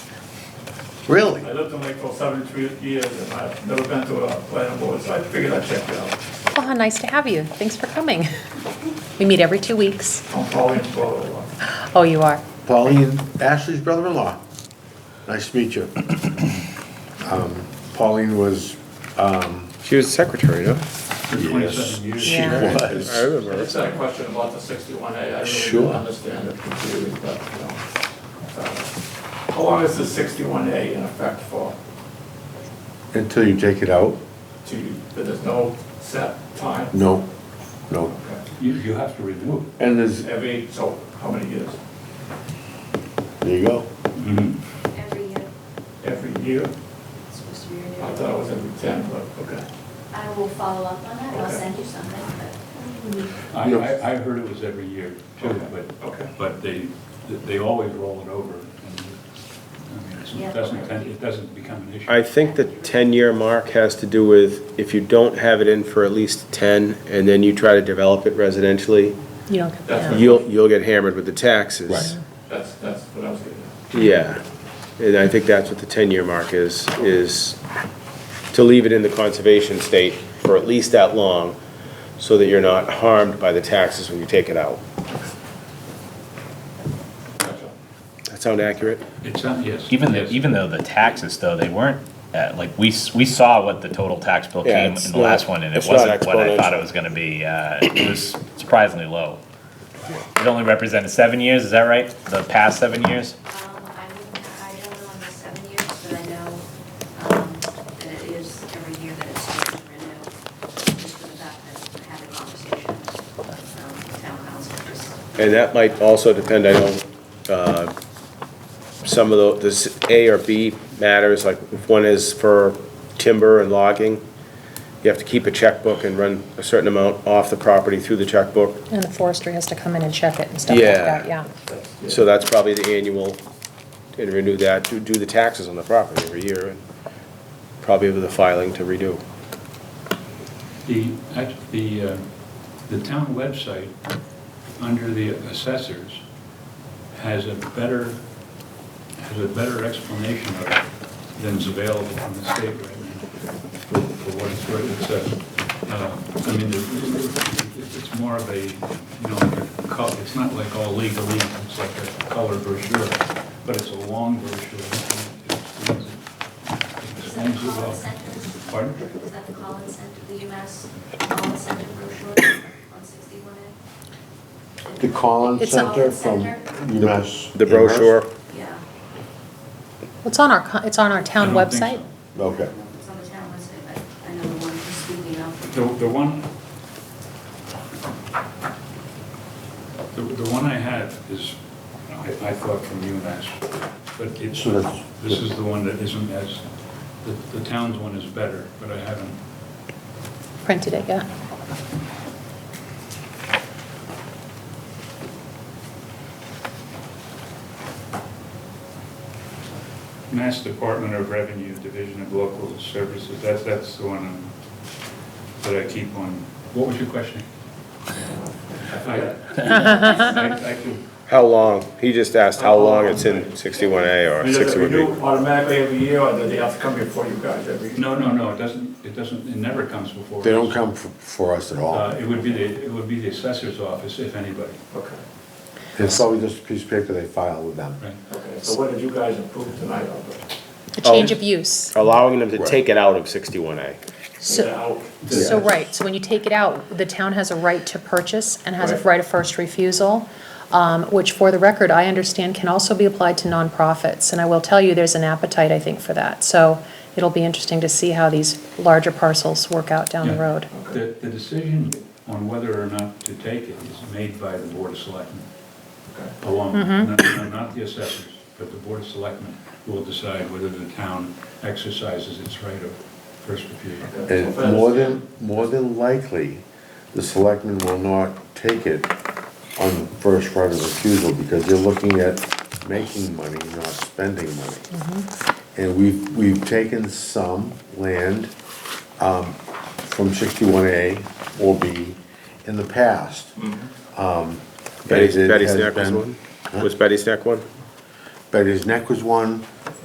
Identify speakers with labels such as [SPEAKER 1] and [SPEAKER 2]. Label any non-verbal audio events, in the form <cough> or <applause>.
[SPEAKER 1] Really?
[SPEAKER 2] I lived in Lakeville seventy-three years, and I've never been to a planning board, so I figured I'd check it out.
[SPEAKER 3] Well, how nice to have you. Thanks for coming. We meet every two weeks.
[SPEAKER 2] I'm probably in Florida.
[SPEAKER 3] Oh, you are?
[SPEAKER 1] <laughs> Pauline, Ashley's brother-in-law. Nice to meet you.
[SPEAKER 4] <coughs>
[SPEAKER 1] Um, Pauline was, um,
[SPEAKER 4] She was secretary, no?
[SPEAKER 1] yes, she
[SPEAKER 3] Yeah.
[SPEAKER 1] was.
[SPEAKER 4] I remember.
[SPEAKER 2] It's that question about the sixty-one A, I really
[SPEAKER 1] Sure.
[SPEAKER 2] don't understand it completely, but, you know. uh, How long is the sixty-one A in effect for?
[SPEAKER 1] Until you take it out?
[SPEAKER 2] Do you, there's no set time?
[SPEAKER 1] No, no.
[SPEAKER 2] Okay.
[SPEAKER 5] You, you have to renew it.
[SPEAKER 1] And there's,
[SPEAKER 2] Every, so, how many years?
[SPEAKER 1] there you go.
[SPEAKER 6] Every year,
[SPEAKER 2] Every year?
[SPEAKER 6] it's supposed to be
[SPEAKER 2] I
[SPEAKER 6] renewed.
[SPEAKER 2] thought it was every ten, but, okay.
[SPEAKER 6] I will follow up on that, and I'll
[SPEAKER 2] Okay.
[SPEAKER 6] send you something,
[SPEAKER 5] I,
[SPEAKER 1] No.
[SPEAKER 5] I, I heard it was every year too,
[SPEAKER 2] Okay.
[SPEAKER 5] but, but they, they always roll it over. and, I mean, it's-
[SPEAKER 6] Yeah.
[SPEAKER 5] It doesn't, it doesn't become an issue.
[SPEAKER 4] I think the ten-year mark has to do with if you don't have it in for at least ten, and then you try to develop it residentially,
[SPEAKER 3] You don't get
[SPEAKER 2] That's
[SPEAKER 3] that.
[SPEAKER 4] you'll, you'll get hammered with the taxes.
[SPEAKER 2] That's, that's what I was getting at.
[SPEAKER 4] Yeah, and I think that's what the ten-year mark is, is to leave it in the conservation state for at least that long, so that you're not harmed by the taxes when you take it out.
[SPEAKER 2] Gotcha.
[SPEAKER 4] That sound accurate?
[SPEAKER 5] It's, not- yes.
[SPEAKER 7] Even though,
[SPEAKER 5] yes.
[SPEAKER 7] even though the taxes though, they weren't, uh, like, we, s- we saw what the total tax bill
[SPEAKER 4] Yeah,
[SPEAKER 7] came
[SPEAKER 4] it's
[SPEAKER 7] in the last
[SPEAKER 4] not-
[SPEAKER 7] one and it
[SPEAKER 4] it's not
[SPEAKER 7] wasn't what I thought
[SPEAKER 4] exponential.
[SPEAKER 7] it was gonna be. Uh, it was surprisingly low. It only represented seven years, is that right? The past seven years?
[SPEAKER 6] but, um, I wouldn't, I don't know on the seven years, but I know, um, that it is every year that it's supposed to renew. Just for the fact that I had a conversation with, um, town council, just,
[SPEAKER 4] And that might also depend, I know, uh, some of the, this A or B matters, like if one is for timber and logging, you have to keep a checkbook and run a certain amount off the property through the checkbook.
[SPEAKER 3] And the forestry has to come in and check it and stuff like
[SPEAKER 4] Yeah.
[SPEAKER 3] that, yeah.
[SPEAKER 4] So that's probably the annual, and renew that, do, do the taxes on the property every year, and probably with a filing to redo.
[SPEAKER 5] The, act- the, uh, the town website, under the assessors, has a better, has a better explanation of it than's available from the state right now, for for what it's worth. It's a, uh, I mean, there- it- it's more of a, you know, like a col- it's not like all legalese, it's like a color brochure, but it's a long brochure. It explains it-
[SPEAKER 6] is
[SPEAKER 5] explains it
[SPEAKER 6] that the
[SPEAKER 5] well.
[SPEAKER 6] Collins Center?
[SPEAKER 5] Pardon?
[SPEAKER 6] Is that the Collins Center, the UMass Collins Center brochure on sixty-one A?
[SPEAKER 1] The Collins
[SPEAKER 3] It's a-
[SPEAKER 1] Center from
[SPEAKER 6] Center?
[SPEAKER 1] UMass.
[SPEAKER 4] The brochure,
[SPEAKER 6] Yeah,
[SPEAKER 3] It's on our, co- it's on our town
[SPEAKER 5] I don't think
[SPEAKER 3] website?
[SPEAKER 5] so.
[SPEAKER 1] Okay.
[SPEAKER 6] it's on the town website, but I know the one you're speaking of.
[SPEAKER 5] The, the one, the, the one I had is, I, I thought from UMass, but it's,
[SPEAKER 1] So that's-
[SPEAKER 5] this is the one that isn't as, the, the town's one is better, but I haven't,
[SPEAKER 3] Printed it, yeah.
[SPEAKER 5] Mass Department of Revenue, Division of Local Services, that's, that's the one I'm- that I keep on. What was your question? I, I I could,
[SPEAKER 4] how long, he just asked how long it's in sixty-one A
[SPEAKER 2] I
[SPEAKER 4] or
[SPEAKER 2] mean, does it
[SPEAKER 4] sixty-one B.
[SPEAKER 2] renew automatically every year, or do they have to come before you guys every?
[SPEAKER 5] no, no, no, it doesn't, it doesn't, it never comes before.
[SPEAKER 1] They
[SPEAKER 5] us.
[SPEAKER 1] don't come for, for us at all.
[SPEAKER 5] Uh, It would be the, it would be the assessor's office, if anybody,
[SPEAKER 2] Okay,
[SPEAKER 1] It's probably just a piece of paper they file with them.
[SPEAKER 5] right?
[SPEAKER 2] okay, so what did you guys approve tonight of it?
[SPEAKER 3] A
[SPEAKER 5] Oh,
[SPEAKER 3] change of use.
[SPEAKER 4] Allowing them to
[SPEAKER 1] Right.
[SPEAKER 4] take it out of sixty-one A.
[SPEAKER 3] So,
[SPEAKER 2] Now,
[SPEAKER 3] so right, so when you take it out, the town has a right to purchase and has a right of first refusal, um, which for the record, I understand can also be applied to nonprofits. And I will tell you, there's an appetite, I think, for that. So it'll be interesting to see how these larger parcels work out down the
[SPEAKER 5] Yeah.
[SPEAKER 3] road.
[SPEAKER 5] The, the decision on whether or not to take it is made by the Board of Selectmen
[SPEAKER 2] okay.
[SPEAKER 5] alone.
[SPEAKER 3] Mm-hmm.
[SPEAKER 5] Not- Not not the assessors, but the Board of Selectmen will decide whether the town exercises its right of first refusal.
[SPEAKER 1] And more than, more than likely, the selectmen will not take it on the first right of refusal because they're looking at making money, not spending money. And we've, we've taken some land, um, from sixty-one A or B in the past. Um,
[SPEAKER 4] Betty's,
[SPEAKER 1] and it
[SPEAKER 4] Betty's
[SPEAKER 1] has
[SPEAKER 4] Neck was
[SPEAKER 1] been-
[SPEAKER 4] one? Was Betty's Neck one?
[SPEAKER 1] Betty's Neck was one,